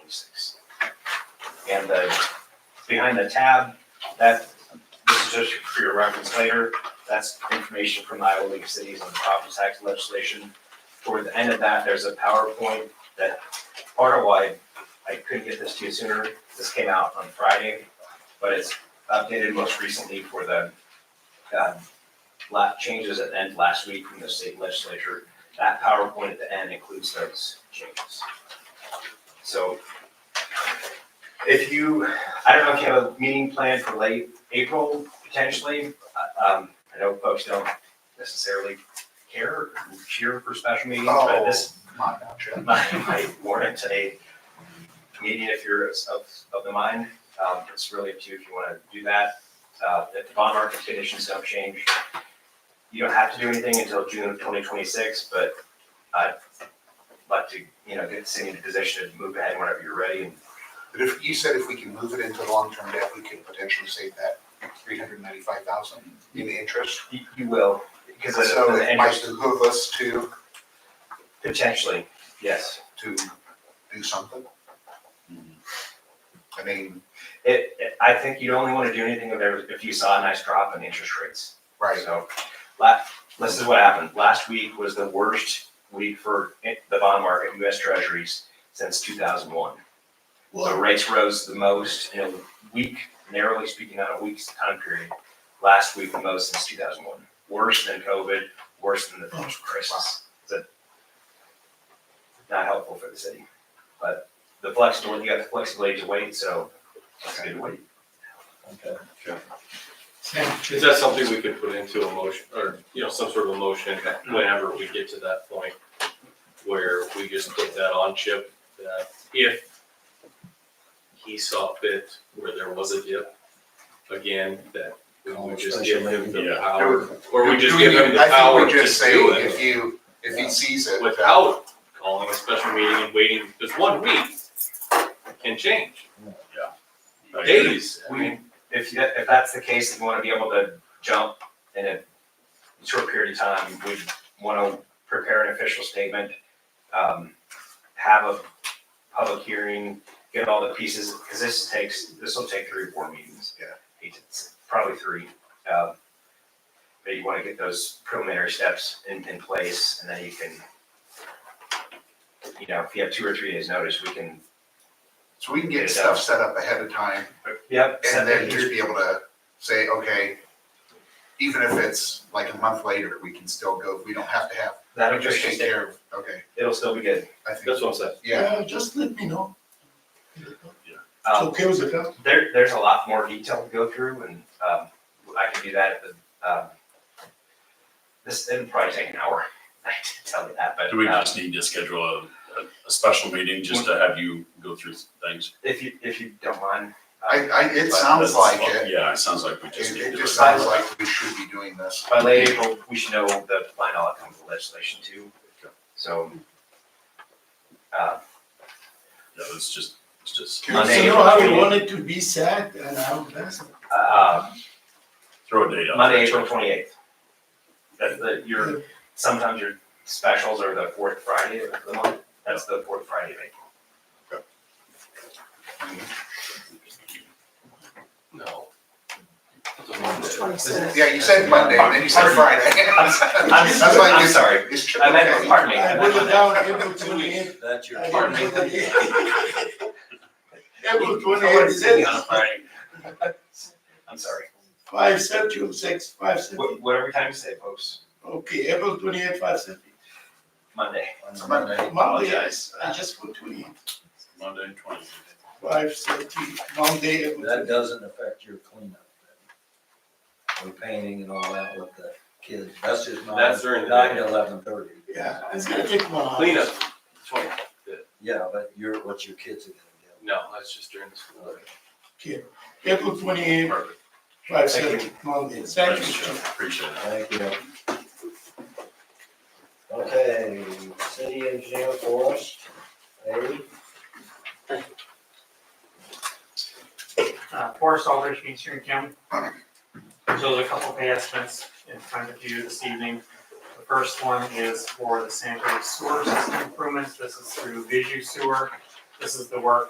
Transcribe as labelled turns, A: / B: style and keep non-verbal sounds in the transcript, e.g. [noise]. A: twenty-six. And the, behind the tab, that, this is just for your reference later, that's information from the Iowa League of Cities on property tax legislation. Toward the end of that, there's a PowerPoint that part of why I couldn't get this to you sooner, this came out on Friday, but it's updated most recently for the, um, la changes at the end last week from the state legislature. That PowerPoint at the end includes those changes. So if you, I don't know if you have a meeting planned for late April potentially. Uh, Um, I know folks don't necessarily care or cheer for special meetings, but this
B: Not now, Chip.
A: might, might warrant a meeting if you're of, of the mind. Um, it's really up to you if you want to do that. Uh, if the bond market conditions don't change, you don't have to do anything until June of twenty twenty-six, but I'd like to, you know, get the city in a position to move ahead whenever you're ready and
B: But if, you said if we can move it into long-term debt, we could potentially save that three hundred ninety-five thousand in interest.
A: you, you will. Because of
B: So
A: the- the
B: it might
A: interest,
B: behoove us to,
A: potentially, yes.
B: to do something. I mean,
A: It, it- I think you'd only want to do anything if there was- if you saw a nice drop in interest rates.
B: right,
A: So, la this is what happened. Last week was the worst week for i- the bond market, in US Treasuries, since two thousand one. So rates rose the most in a week, narrowly speaking, on a week's time period. Last week, the most since two thousand one. Worse than COVID, worse than the financial crisis. So, Not helpful for the city, but the flexibility, you got the flexibility to wait, so that's a good wait.
C: Okay.
D: Is that something we could put into a motion, or, you know, some sort of a motion whenever we get to that point? Where we just put that on Chip, that if he saw fit where there was a dip, again, that we would just give him the
C: Yeah.
D: power, or we
B: Do
D: just
B: we
D: give him
B: need-
D: the power
B: I think we
D: to
B: just say
D: do it
B: if you, if he sees it.
D: without calling a special meeting and waiting, because one week can change, days, I mean,
A: if you, if that's the case, and you wanna be able to jump in a short period of time, we wanna prepare an official statement, um, have a public hearing, get all the pieces, cause this takes, this will take three, or four meetings.
B: Yeah.
A: Eight to- Probably three, um, but you wanna get those preliminary steps in, in place, and then you can, you know, if you have two or three days' notice, we can,
B: So we can get stuff set up ahead of time
A: yep. uh, set
B: And then
A: the-
B: just be able to say, okay, even if it's like a month later, we can still go, we don't have to have,
A: That'll
B: just
A: just,
B: take care of, okay,
A: it'll still be good.
B: I think,
D: that's what I'm saying.
B: yeah.
C: Uh, just let me know. It's
A: Um,
C: okay with the
A: There, there's a lot more detail to go through and, um, I can do that, but, um, this, it'll probably take an hour, [laughs] I did tell you that, but.
E: Do we
A: um,
E: just need to schedule a, a- a special meeting just to have you go through things?
A: If you, if you don't mind. uh,
B: I, I, it
E: But
B: sounds
E: that's-
B: like it,
E: Yeah, it sounds like we just
B: it,
E: need to.
B: it
E: do
B: just
E: it.
B: sounds like we should be doing this.
A: By late April, we should know the final outcome of the legislation too, so. Uh,
E: Yeah, let's just, let's just
C: So
A: Monday,
C: you
A: April
C: know how we
A: 28th.
C: want it to be set and how that's.
A: uh,
E: throw a date out.
A: Monday,
E: there.
A: April twenty-eighth. That's the, your, sometimes your specials are the fourth Friday of the month, that's the fourth Friday of April.
D: No. It's a Monday.
B: Yeah, you said Monday, and then you said Friday.
A: I'm,
B: That's why
A: I'm
B: it's-
A: sorry,
B: It's true,
A: I meant,
B: okay.
A: pardon me. I
C: I
A: meant
C: put
A: Monday.
C: it down April twenty-eighth.
D: That's
C: I
A: pardon
C: didn't
A: [laughs]
C: put
D: me.
C: it- April
A: Someone
C: twenty-eighth,
A: sitting on a
C: six,
A: Friday. I'm sorry.
C: five September, six, five September.
A: What, whatever time you say, folks.
C: Okay, April twenty-eighth, five September.
A: Monday.
B: It's Monday.
C: Monday, I, s- I just put twenty-eighth,
E: Monday, twenty.
C: five September, Monday, April
F: That
C: 28th.
F: doesn't affect your cleanup. then. Or painting and all that with the kids, that's just nine.
D: That's during the
F: Nine
D: day.
F: to eleven thirty,
C: Yeah, it's gonna take one hour.
D: Cleanup, twenty,
F: yeah, but you're, what your kids are gonna
D: no, that's just during the school. day.
C: April twenty-eighth,
E: Perfect.
C: five
A: Thank you.
C: September, Monday. Thank
E: Thanks,
C: you.
E: Jeff. Appreciate it.
F: get. Thank you. Okay, city engineer Forrest, A.
G: uh, Forest Aldrich, Main Street County. So there's a couple pay estimates in front of you this evening. The first one is for the sanitary sewer system improvements. This is through Visu Sewer. This is the work